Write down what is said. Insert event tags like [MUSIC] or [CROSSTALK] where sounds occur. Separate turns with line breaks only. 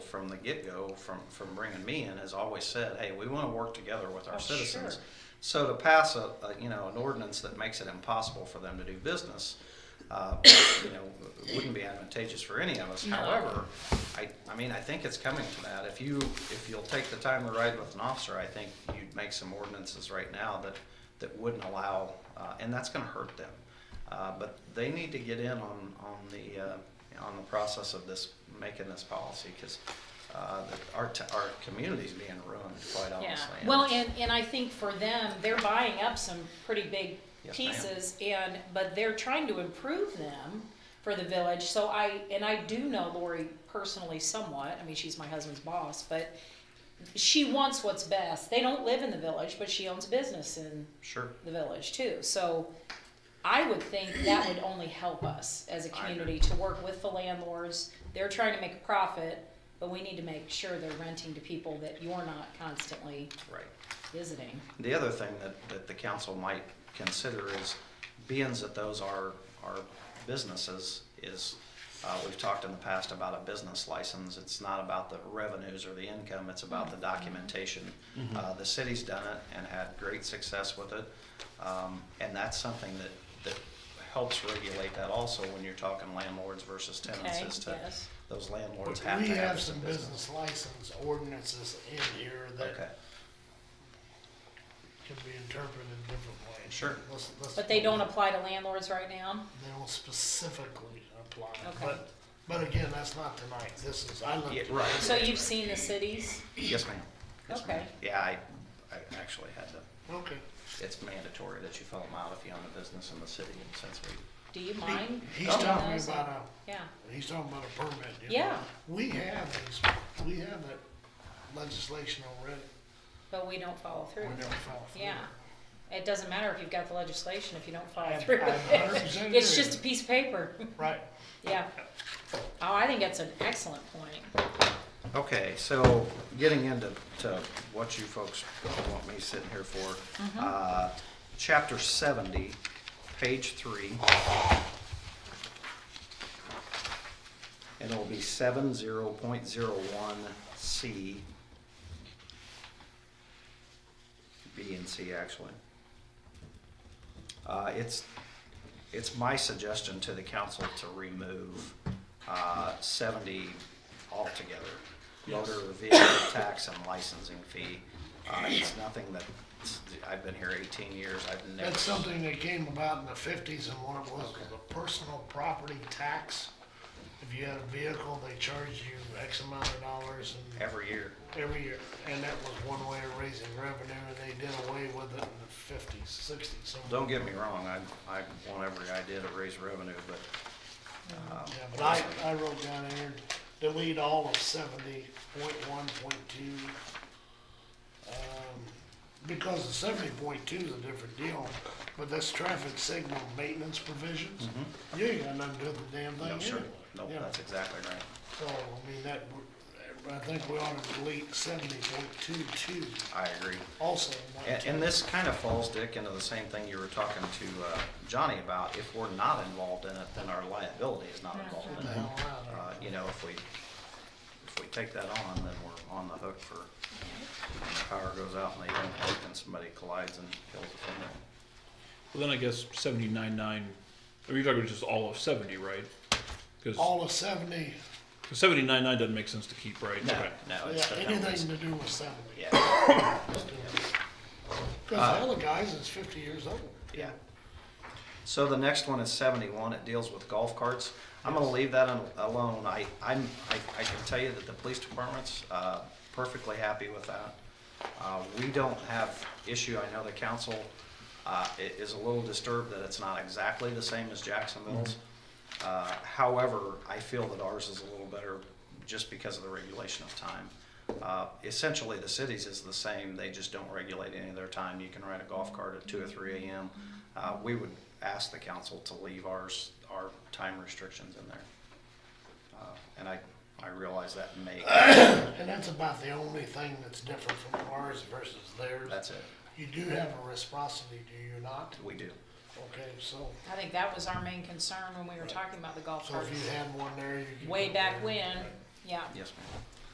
from the get-go, from, from bringing me in, has always said, hey, we want to work together with
Oh,
our citizens.
sure.
So to pass a, a, you know, an ordinance that makes it impossible for them to do business, uh, you know, wouldn't be advantageous for any of us.
No.
However, I, I mean, I think it's coming to that. If you, if you'll take the time to ride with an officer, I think you'd make some ordinances right now that, that wouldn't allow, uh, and that's gonna hurt them. Uh, but they need to get in on, on the, uh, on the process of this, making this policy, cause, uh, our, t- our community's being ruined, quite
Yeah,
honestly.
well, and, and I think for them, they're buying up some pretty big
Yes, ma'am.
pieces and, but they're trying to improve them for the village, so I, and I do know Lori personally somewhat, I mean, she's my husband's boss, but she wants what's best, they don't live in the village, but she owns a business in
Sure.
the village too, so I would think that would only help us as a
I
community to work with the landlords, they're trying to make a profit, but we need to make sure they're renting to people that you're not constantly
Right.
visiting.
The other thing that, that the council might consider is, being that those are, are businesses, is, uh, we've talked in the past about a business license, it's not about the revenues or the income, it's about the documentation. Uh, the city's done it and had great success with it, um, and that's something that, that helps regulate that also when you're talking landlords versus tenants,
Okay,
is to,
yes.
those landlords
But
have to
We
have.
have
this
some
in
business license ordinances in here
Okay,
that can be interpreted different ways.
Sure.
Let's- let's-
But they don't apply to landlords right now?
They don't specifically apply,
Okay.
but, but again, that's not tonight, this is, I looked.
Yeah,
at-
right.
So you've seen the cities?
yes, ma'am. Yes, ma'am.
Okay.
Yeah, I, I actually had to
Okay.
it's mandatory that you fill them out if you own a business in the city, and since we,
Do you
He-
mind?
He's
doing
talking
those?
about uh,
Yeah,
a, he's talking about a permit. you know.
Yeah.
We have these, we have that legislation already,
but we don't follow
we
through.
don't follow through.
Yeah. It doesn't matter if you've got the legislation if you don't follow
I-
through.
I
[LAUGHS]
100%
It's
agree.
just a piece of paper. [LAUGHS]
Right,
Yeah. Oh, I think that's an excellent point.
okay, so getting into, to what you folks want me sitting here for. Uh, chapter seventy, page three. It'll be seven zero point zero one C. B and C actually. Uh, it's, it's my suggestion to the council to remove, uh, seventy altogether. Motor vehicle tax and licensing fee. Uh, it's nothing that, I've been here eighteen years, I've never.
that's something that came about in the fifties and what it was, was a personal property tax. If you had a vehicle, they charged you X amount of dollars and
Every year.
every year, and that was one way of raising revenue, and they did away with it in the fifties, sixties, somewhere.
Don't get me wrong, I, I want every idea to raise revenue, but, um,
Yeah, but I, I wrote down here, delete all of seventy point one, point two. Because the seventy point two is a different deal, but that's traffic signal maintenance provisions, you ain't got nothing to do with the damn thing
Mm-hmm. no,
anyway.
sure, no,
Yeah.
that's exactly right.
So, I mean, that, w- I think we ought to delete seventy point two two
I agree.
also. not
And, and this kind of falls, Dick, into the same thing you were talking to, uh, Johnny about. If we're not involved in it, then our liability is not involved
to
in
the
it.
hell out of it.
Uh, you know, if we, if we take that on, then we're on the hook for, when the power goes out and they don't work and somebody collides and kills a family.
Well, then I guess seventy-nine nine, are you talking just all of seventy, right? Because
All of seventy,
seventy-nine nine doesn't make sense to keep, right?
No,
Okay.
no, Oh, it's
yeah,
the
anything
penalties.
to do with seventy.
Yeah, Uh,
Cause the other guys is fifty years old.
Yeah. So the next one is seventy-one, it deals with golf carts. I'm gonna leave that un- alone. I, I'm, I, I can tell you that the police department's, uh, perfectly happy with that. Uh, we don't have issue, I know the council, uh, i- is a little disturbed that it's not exactly the same as Jacksonville's. Uh, however, I feel that ours is a little better just because of the regulation of time. Uh, essentially, the cities is the same, they just don't regulate any of their time. You can ride a golf cart at two or three AM. Uh, we would ask the council to leave ours, our time restrictions in there. Uh, And I, I realize that may,
And that's about the only thing that's different from ours versus theirs.
that's it,
You do have a reciprocity, do you not?
we do.
Okay, so,
I think that was our main concern when we were talking about the golf
so
carts.
if you had one there, you. could
Way
put
back
there.
when, yeah.
Yes, ma'am.